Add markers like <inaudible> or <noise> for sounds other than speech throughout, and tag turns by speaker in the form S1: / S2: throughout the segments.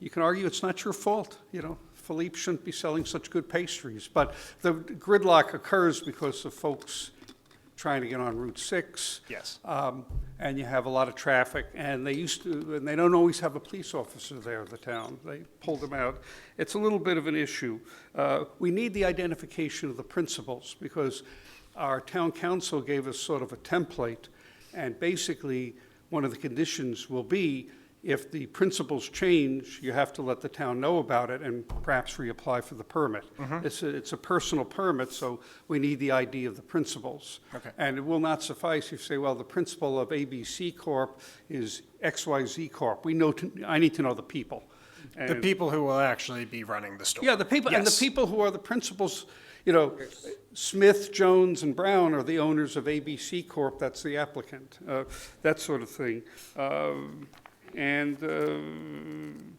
S1: you can argue it's not your fault, you know, Philippe shouldn't be selling such good pastries, but the gridlock occurs because of folks trying to get on Route 6.
S2: Yes.
S1: Um, And you have a lot of traffic, and they used to, and they don't always have a police officer there, the town. They pulled them out. It's a little bit of an issue. Uh, We need the identification of the principals, because our town council gave us sort of a template, and basically, one of the conditions will be, if the principles change, you have to let the town know about it and perhaps reapply for the permit. It's, a- it's a personal permit, so we need the ID of the principals.
S2: Okay.
S1: And it will not suffice if you say, well, the principal of ABC Corp. is XYZ Corp. We know, to- I need to know the people.
S2: The
S1: And-
S2: people who will actually be running the store.
S1: Yeah, the people, and the
S2: Yes.
S1: people who are the principals, you know, Smith, Jones, and Brown are the owners of ABC Corp., that's the applicant, uh, that sort of thing. Um, And um,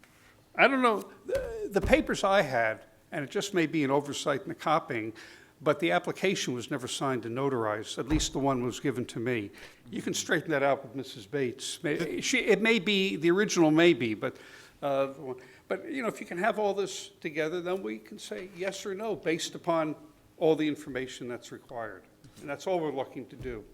S1: I don't know, the- the papers I had, and it just may be an oversight in the copying, but the application was never signed and notarized, at least the one was given to me. You can straighten that out with Mrs. Bates. May- She, it may be, the original may be, but, uh, the one- but, you know, if you can have all this together, then we can say yes or no based upon all the information that's required. And that's all we're looking to do.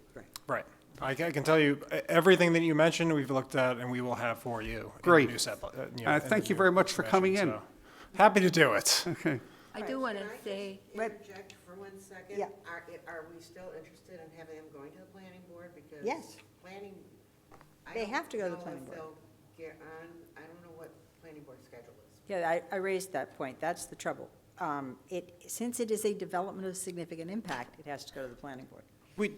S2: Right. I ca- I can tell you, e- everything that you mentioned, we've looked at and we will have for you. in the
S1: Great.
S2: new set- uh, you know,
S1: Uh,
S2: in the
S1: thank you
S2: new
S1: very much for
S2: information,
S1: coming in.
S2: so. Happy to
S1: <laughs>
S2: do it.
S3: I do want to
S4: Can I just
S3: say,
S4: Interject for one second?
S5: Yeah.
S4: Are, it- are we still interested in having them going to the planning board? Because
S5: Yes.
S4: Planning. I
S5: They
S4: don't
S5: have to go to the
S4: know
S5: planning
S4: if
S5: board.
S4: they'll Get on, I don't know what planning board schedule is.
S5: Yeah, I, I raised that point, that's the trouble. Um, It, since it is a development of significant impact, it has to go to the planning board.
S2: We,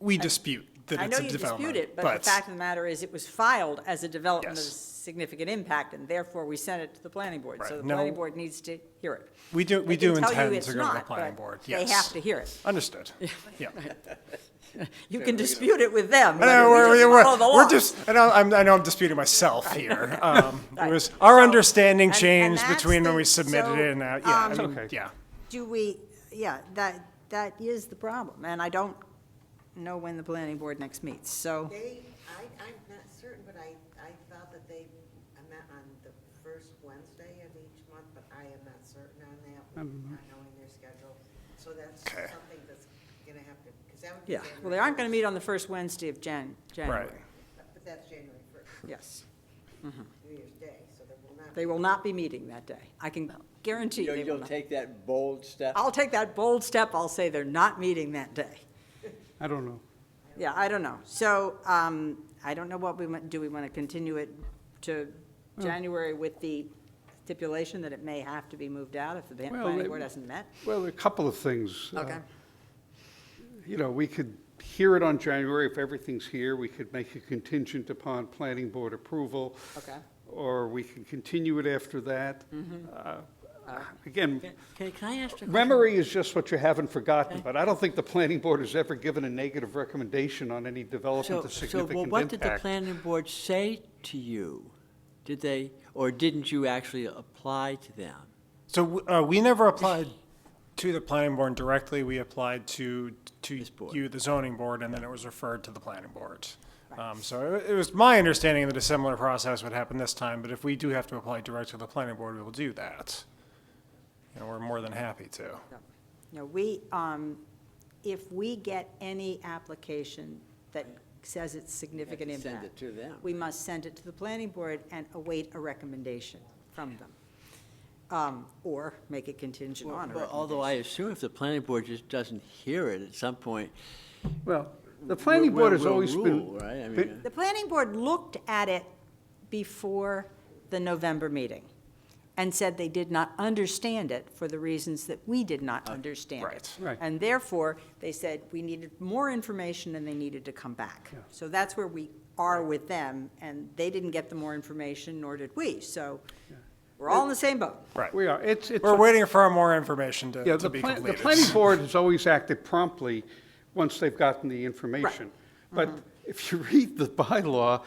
S2: we dispute that
S5: I
S2: it's
S5: know
S2: a
S5: you dispute
S2: development.
S5: it, but the fact of the matter is, it was filed as a development of
S2: Yes.
S5: significant impact, and therefore we sent it to the planning board. So
S2: Right.
S5: the planning
S2: No.
S5: board needs to hear it.
S2: We do, we
S5: They can
S2: do
S5: tell you
S2: intend
S5: it's
S2: to go to the
S5: not,
S2: planning
S5: but
S2: board, yes.
S5: They have to hear it. <laughs>
S2: Understood. Yeah.
S5: You can dispute it with them.
S2: I
S5: whether
S2: know,
S5: we
S2: we're,
S5: just
S2: we're,
S5: follow the
S2: we're,
S5: law.
S2: we're just, I know, I'm, I know I'm disputing myself
S5: <laughs>
S2: here. Um, it
S5: Right.
S2: was, our
S5: So-
S2: understanding
S5: and- and
S2: changed
S5: that's
S2: between when
S5: the-
S2: we submitted
S5: so,
S2: it and, now- yeah, I
S1: um,
S2: mean,
S1: Okay.
S2: yeah.
S5: Do we, yeah, that, that is the problem, and I don't know when the planning board next meets, so.
S4: They, I, I'm not certain, but I, I thought that they met on the first Wednesday of each month, but I am not certain on that, not knowing their schedule. So that's
S2: Okay.
S4: something that's gonna have to, because that would be.
S5: Yeah,
S4: January
S5: well, they aren't going to
S4: first,
S5: meet on the first Wednesday of Jan, January.
S2: Right.
S4: But that's January first,
S5: Yes.
S4: New Year's Day, so there will not.
S5: They
S4: be-
S5: will not be meeting that day. I can guarantee
S6: You'll,
S5: they will
S6: you'll
S5: not.
S6: take that bold step?
S5: I'll take that bold step, I'll say they're not meeting that day.
S1: I don't know.
S5: Yeah, I don't know. So um, I don't know what we, want- do we want to continue it to January with the stipulation that it may have to be moved out if the ban-
S1: Well,
S5: planning
S1: they-
S5: board hasn't met?
S1: Well, a couple of things. uh,
S5: Okay,
S1: you know, we could hear it on January if everything's here. We could make it contingent upon planning board approval.
S5: Okay.
S1: Or we can continue it after that.
S6: Mm-hmm.
S1: Uh, Again,
S6: Can, can I ask a
S1: memory is just what you haven't forgotten, but I don't think the planning board has ever given a negative recommendation on any development of significant
S6: So,
S1: impact.
S6: well, what did the planning board say to you? Did they, or didn't you actually apply to them?
S2: So uh, we never applied to the planning board directly. We applied to to
S6: This board.
S2: you, the zoning board, and then it was referred to the planning board. Um, so it, it was my understanding that a similar process would happen this time. But if we do have to apply directly to the planning board, we will do that. And we're more than happy to.
S5: No. No, we, um, if we get any application that says it's significant
S6: send
S5: impact.
S6: it to them.
S5: We must send it to the planning board and await a recommendation from them. Um, Or make it contingent on a
S6: Well, Although I assume if the planning board just doesn't hear it at some point,
S1: Well, the planning board
S6: will-
S1: has
S6: will
S1: always
S6: rule,
S1: been.
S6: right? I
S1: been-
S6: mean, uh,
S5: The planning board looked at it before the November meeting and said they did not understand it for the reasons that we did not
S6: Uh,
S5: understand it.
S2: right.
S1: Right.
S5: And therefore, they said we needed more information and they needed to come back. So that's where we are with them, and they didn't get the more information, nor did we. So we're all in the same boat.
S2: Right.
S1: We are, it's, it's.
S2: We're
S1: a-
S2: waiting for more information to,
S1: Yeah,
S2: to
S1: the
S2: be
S1: plan- the
S2: completed. <laughs>
S1: planning board has always acted promptly once they've gotten the information. But
S2: Mm-hmm.
S1: if you <laughs> read the bylaw,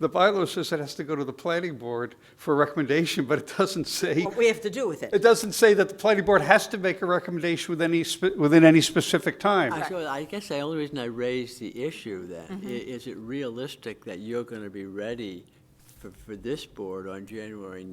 S1: the bylaw says it has to go to the planning board for a recommendation, but it doesn't say,
S5: What we have to do with
S1: it
S5: it.
S1: doesn't say that the planning board has to make a recommendation with any, spe- within any specific
S6: I
S1: time.
S6: feel- I guess the only reason I raised the issue then, i- is it realistic that you're gonna be ready for, for this board on January